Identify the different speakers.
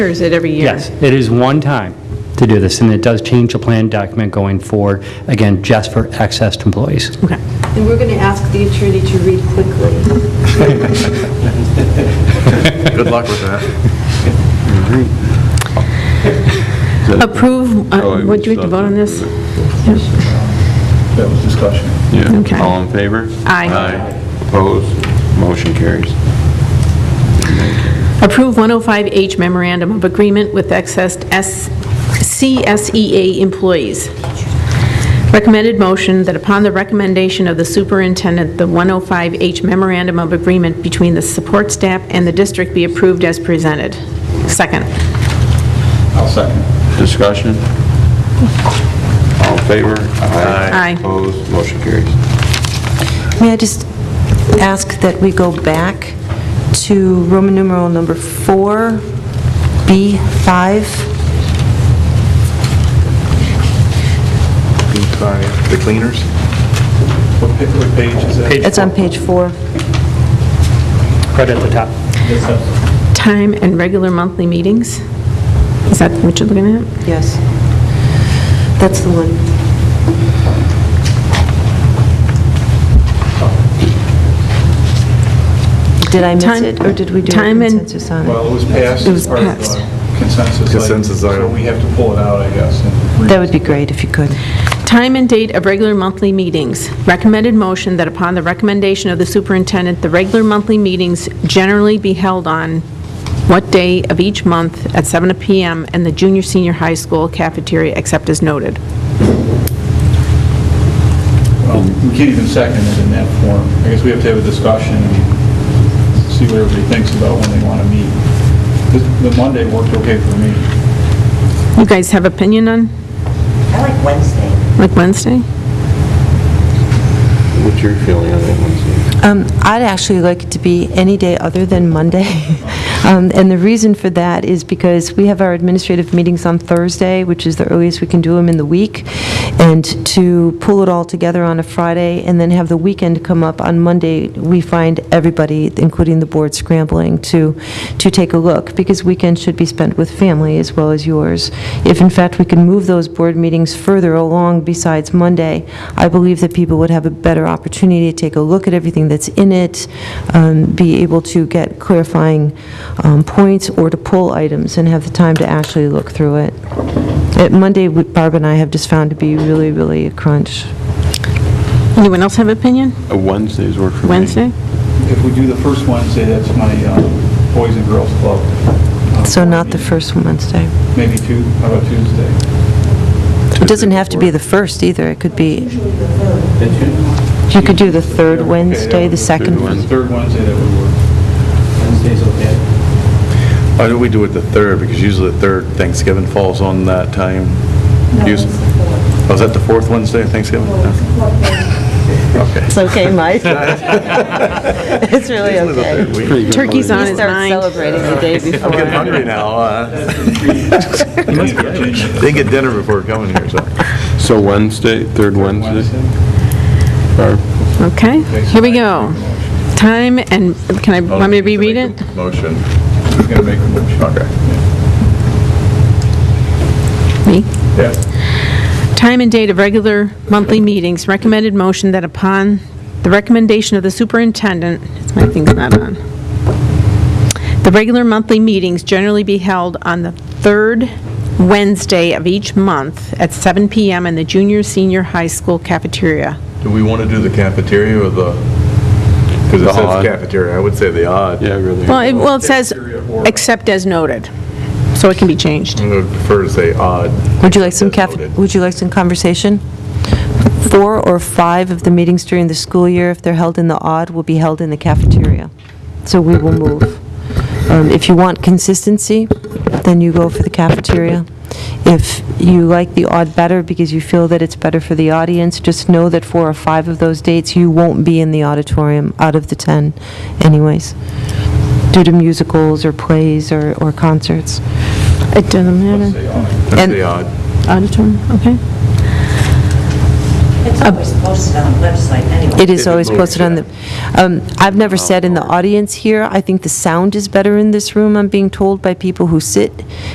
Speaker 1: Or is it every year?
Speaker 2: Yes, it is one time to do this, and it does change the plan document going forward, again, just for access to employees.
Speaker 3: And we're going to ask the attorney to read quickly.
Speaker 4: Good luck with that.
Speaker 1: Approve,
Speaker 4: Oh,
Speaker 1: uh,
Speaker 4: wait,
Speaker 1: would you have to
Speaker 4: stop.
Speaker 1: vote on this?
Speaker 5: That was discussion.
Speaker 1: Okay.
Speaker 4: Yeah. All in favor?
Speaker 1: Aye.
Speaker 4: Aye. Opposed? Motion carries.
Speaker 1: Approve 105H memorandum of agreement with excess S- CSEA employees. Recommended motion that upon the recommendation of the superintendent, the 105H memorandum of agreement between the support staff and the district be approved as presented. Second.
Speaker 5: I'll second.
Speaker 4: Discussion? All in favor?
Speaker 1: Aye.
Speaker 4: Opposed? Motion carries.
Speaker 6: May I just ask that we go back to Roman numeral number 4, B5?
Speaker 7: The cleaners?
Speaker 5: What pa- what page is that?
Speaker 6: It's on page 4.
Speaker 2: Right at the top.
Speaker 1: Time and regular monthly meetings. Is that what you're looking at?
Speaker 6: Yes. That's the one. Did I miss
Speaker 1: Time-
Speaker 6: it, or did we do a
Speaker 1: time and-
Speaker 6: consensus on it?
Speaker 5: Well, it was passed
Speaker 1: It was
Speaker 5: as part of
Speaker 1: passed.
Speaker 5: the consensus item.
Speaker 7: Consensus
Speaker 5: So
Speaker 7: item.
Speaker 5: we have to pull it out, I guess. and re-
Speaker 6: That would be great if you could.
Speaker 1: Time and date of regular monthly meetings. Recommended motion that upon the recommendation of the superintendent, the regular monthly meetings generally be held on what day of each month at 7 PM in the junior, senior high school cafeteria, except as noted.
Speaker 5: well, We can't even second it in that form. I guess we have to have a discussion and see what everybody thinks about when they want to meet. The- The Monday worked okay for me.
Speaker 1: You guys have opinion on,
Speaker 8: I like Wednesday.
Speaker 1: like Wednesday?
Speaker 4: What's your feeling on that one, Steve?
Speaker 6: Um, I'd actually like it to be any day other than Monday. Um, And the reason for that is because we have our administrative meetings on Thursday, which is the earliest we can do them in the week, and to pull it all together on a Friday and then have the weekend come up on Monday, we find everybody, including the board, scrambling to, to take a look, because weekends should be spent with family as well as yours. If in fact we can move those board meetings further along besides Monday, I believe that people would have a better opportunity to take a look at everything that's in it, um, be able to get clarifying um, points or to pull items and have the time to actually look through it. Uh, Monday, we- Barb and I have just found to be really, really a crunch.
Speaker 1: Anyone else have opinion?
Speaker 4: Uh, Wednesdays work for me.
Speaker 1: Wednesday?
Speaker 5: If we do the first Wednesday, that's my um, Boys and Girls Club. uh,
Speaker 6: So not the
Speaker 5: meeting.
Speaker 6: first Wednesday.
Speaker 5: Maybe two, how about Tuesday?
Speaker 6: It doesn't have to be the first either, it could be, you could do the third
Speaker 5: Okay, that
Speaker 6: Wednesday,
Speaker 5: would-
Speaker 6: the second.
Speaker 4: Wednesday.
Speaker 5: Third Wednesday, that would work.
Speaker 9: Wednesday's okay.
Speaker 7: Why don't we do it the 3rd, because usually the 3rd Thanksgiving falls on that time. Us- Oh, is that the 4th Wednesday of Thanksgiving? No. Okay.
Speaker 6: It's okay, Mike. It's really
Speaker 7: Usually the
Speaker 6: okay.
Speaker 7: third week.
Speaker 1: Turkey's on
Speaker 6: You
Speaker 1: his
Speaker 6: start
Speaker 1: mind.
Speaker 6: celebrating the day
Speaker 7: I'm getting
Speaker 6: before.
Speaker 7: hungry now. uh, Didn't get dinner before coming here, so.
Speaker 4: So Wednesday, third Wednesday? Barb?
Speaker 1: Okay, here we go. Time and, can
Speaker 7: Oh,
Speaker 1: I, want me to reread it?
Speaker 7: Motion.
Speaker 5: He's going to make a motion.
Speaker 1: Me?
Speaker 5: Yeah.
Speaker 1: Time and date of regular monthly meetings, recommended motion that upon the recommendation of the superintendent, my thing's not on, the regular monthly meetings generally be held on the third Wednesday of each month at 7 PM in the junior, senior high school cafeteria.
Speaker 7: Do we want to do the cafeteria or the, because
Speaker 4: The
Speaker 7: it says
Speaker 4: odd.
Speaker 7: cafeteria, I would say the odd.
Speaker 4: Yeah, really.
Speaker 1: Well, it, well, it says, except as noted, so it can be changed.
Speaker 7: I would prefer to say odd.
Speaker 6: Would you like some caf,
Speaker 7: Noted.
Speaker 6: would you like some conversation? Four or five of the meetings during the school year, if they're held in the odd, will be held in the cafeteria. So we will move. Um, If you want consistency, then you go for the cafeteria. If you like the odd better because you feel that it's better for the audience, just know that four or five of those dates, you won't be in the auditorium out of the 10 anyways, due to musicals or plays or or concerts.
Speaker 1: It doesn't matter.
Speaker 7: That's the odd.
Speaker 1: Auditorium, okay.
Speaker 8: It's always posted on the website anyway.
Speaker 6: It is
Speaker 7: It
Speaker 6: always
Speaker 7: moves, Oh,
Speaker 6: posted on the, um, I've never sat in the audience here. I think the sound is better in this room, I'm being told by people who sit